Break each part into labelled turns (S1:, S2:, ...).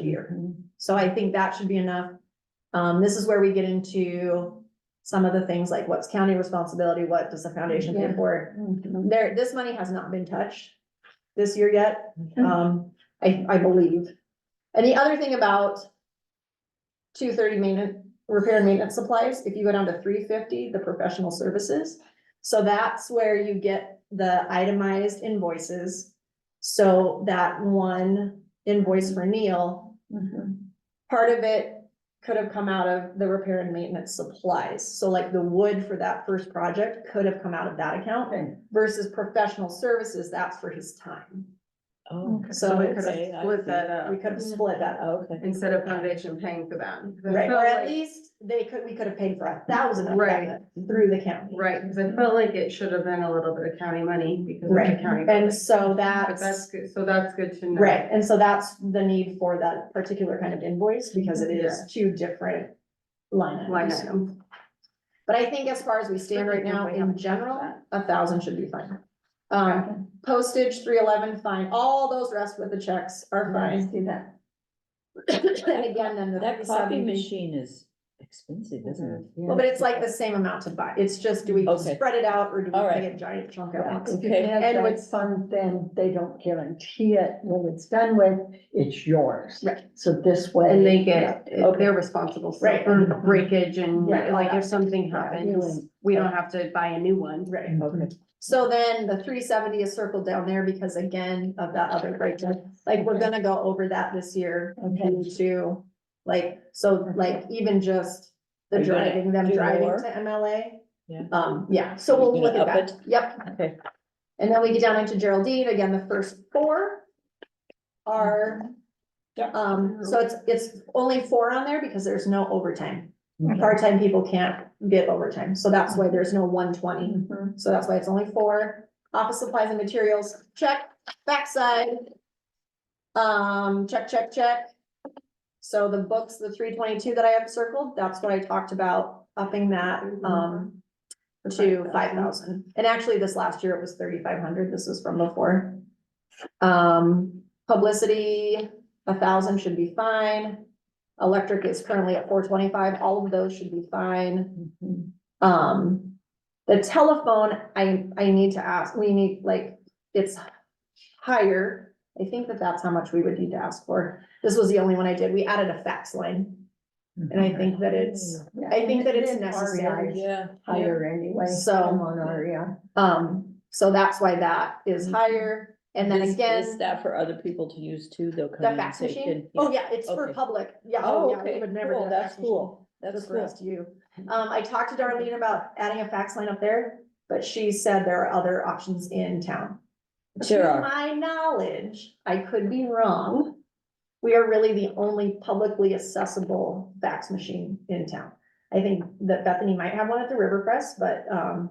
S1: year. So I think that should be enough. Um, this is where we get into some of the things like what's county responsibility, what does the foundation pay
S2: Yeah.
S1: for? it?
S3: Oh,
S1: There, this money has not been touched this year yet,
S3: Mm-hmm.
S1: um, I, I believe. And the other thing about two thirty maintenance, repair and maintenance supplies, if you go down to three fifty, the professional services. So that's where you get the itemized invoices. So that one invoice for Neil, part of it could have come out of the repair and maintenance supplies. So like the wood for that first project could have come out of that account
S2: Okay.
S1: versus professional services, that's for his time.
S3: Oh.
S1: So
S3: okay,
S1: it's
S3: I
S2: Split
S3: see.
S2: that up,
S1: We could have split that up.
S3: Oh, Okay.
S2: instead of foundation paying for that. 'Cause I
S1: Right,
S2: felt
S1: or at
S2: like-
S1: least they could, we could have paid for a thousand of
S2: Right.
S1: that through the county.
S2: Right, because I felt like it should have been a little bit of county money because of
S1: Right,
S2: the county.
S1: and so
S2: But that's
S1: that's,
S2: good, so that's good to know.
S1: right, and so that's the need for that particular kind of invoice, because it is two different line
S2: Line
S1: items.
S2: item.
S1: But I think as far as we stand right now, in general, a thousand should be fine. Um, postage, three eleven, fine, all those rest with the checks are fine.
S2: See that.
S1: And again, then the
S3: That
S1: three
S3: coffee
S1: seventy.
S3: machine is expensive, isn't it?
S1: Mm-hmm. Well, but it's like the same amount to buy, it's just, do we
S3: Okay.
S1: spread it out, or do we
S3: All right.
S1: pay a giant chunk at once?
S4: If you have
S1: And
S4: that
S1: with-
S4: fund, then they don't guarantee it when it's done with, it's yours.
S1: Right.
S4: So this way.
S2: And they get,
S3: Okay.
S2: they're responsible
S1: Right.
S2: for breakage and
S1: Right.
S2: like if something happens,
S4: Really.
S2: we don't have to buy a new one.
S1: Right.
S3: Okay.
S1: So then the three seventy is circled down there because again, of that other breakdown, like, we're gonna go over that this year.
S4: Okay,
S1: due to, like, so like even just
S3: Are
S1: the
S3: you gonna
S1: driving, them
S3: do
S1: driving
S3: more?
S1: to MLA.
S3: Yeah.
S1: Um, yeah, so
S3: Are you
S1: we'll look
S3: gonna
S1: at that, yep.
S3: Okay.
S1: And then we get down into Geraldine, again, the first four are,
S3: Yeah.
S1: um, so it's, it's only four on there because there's no overtime. Part-time people can't get overtime, so that's why there's no one twenty, so that's why it's only four. Office supplies and materials, check, backside. Um, check, check, check. So the books, the three twenty-two that I have circled, that's what I talked about, upping that, um, to five thousand. And actually, this last year it was thirty-five hundred, this is from before. Um, publicity, a thousand should be fine. Electric is currently at four twenty-five, all of those should be fine. Um, the telephone, I, I need to ask, we need, like, it's higher. I think that that's how much we would need to ask for. This was the only one I did. We added a fax line. And I think that it's,
S4: yeah.
S1: I think that it's
S4: It is
S1: necessary.
S4: REI
S3: Yeah.
S4: Higher anyway.
S1: So-
S4: I'm on REI.
S1: um, so that's why that is higher. And then
S3: Mm-hmm. Is-
S1: again.
S3: Is that for other people to use too? They'll come
S1: The
S3: in and
S1: fax
S3: say,
S1: machine?
S3: "Can-"
S1: Oh, yeah, it's for
S3: Okay.
S1: public. Yeah,
S3: Oh,
S1: oh, yeah, we
S3: okay,
S1: would never. do
S3: cool,
S1: a fax
S3: that's
S1: machine.
S3: cool, that's
S1: Just for
S3: cool.
S1: us to you. Um, I talked to Darlene about adding a fax line up there, but she said there are other options in town.
S3: There
S1: To
S3: are.
S1: my knowledge, I could be wrong. We are really the only publicly accessible fax machine in town. I think that Bethany might have one at the River Press, but, um,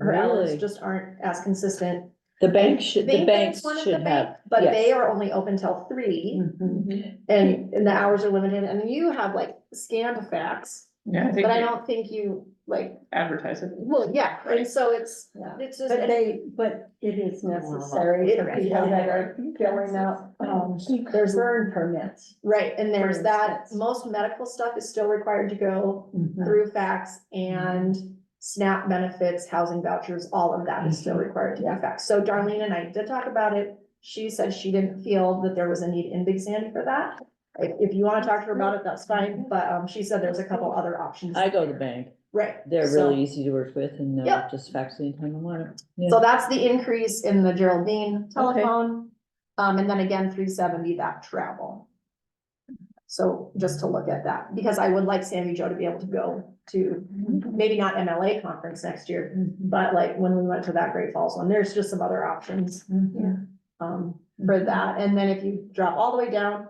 S1: her hours
S3: Really?
S1: just aren't as consistent.
S3: The bank should, the
S1: Think there's
S3: banks
S1: one at the
S3: should
S1: bank,
S3: have.
S1: But
S3: yes.
S1: they are only open till three. Mm-hmm.
S3: Mhm.
S1: And, and the hours are limited, and you have like scanned fax,
S5: Yeah, I think
S1: but I
S5: they
S1: don't think you, like,
S5: advertise it.
S1: well, yeah, and so it's,
S4: Yeah.
S1: it's just.
S4: But they, but it
S1: Oh,
S4: is necessary for people that are filling out, um,
S1: There's-
S4: burn permits.
S1: Right, and there's
S4: For
S1: that,
S4: instance.
S1: most medical stuff is still required to go
S3: Mm.
S1: through fax
S3: Mm-hmm.
S1: and SNAP benefits, housing vouchers, all of that is still
S3: Mm-hmm.
S1: required to be faxed. So Darlene and I did talk about it. She said she didn't feel that there was a need in Big Sandy for that. If, if you wanna talk to her about it, that's fine, but, um, she said there's a couple other options.
S3: Mm-hmm. I go to the bank.
S1: Right.
S3: They're
S1: so-
S3: really easy to work with and they'll
S1: Yep.
S3: just fax anytime I want it. Yeah.
S1: So that's the increase in the Geraldine telephone. Um, and then again, three seventy, that travel. So just to look at that, because I would like Sammy Joe to be able to go to, maybe not MLA conference next year, but like when we went to that Great Falls one, there's just some other options um,
S3: Mm-hmm.
S1: for that. And then if you drop all the way down,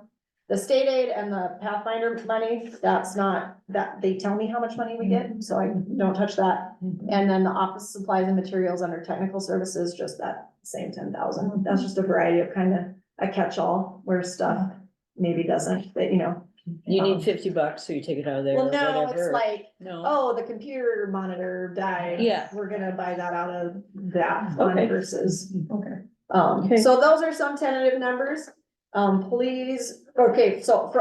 S1: the state aid and the Pathfinder money, that's not, that, they tell me how much money we get, so I don't touch that. And then the office supplies and materials under technical services, just that same ten thousand. That's just a variety of kind of a catch-all where stuff maybe doesn't, but you know.
S3: You
S1: um,
S3: need fifty bucks, so you take it out of there or
S1: Well, no,
S3: whatever.
S1: it's like,
S3: No,
S1: oh, the computer monitor died.
S3: Yeah.
S1: We're gonna buy that out of that fund
S3: Okay.
S1: versus
S5: Okay.
S1: um,
S3: Okay.
S1: so those are some tentative numbers. Um, please, okay, so for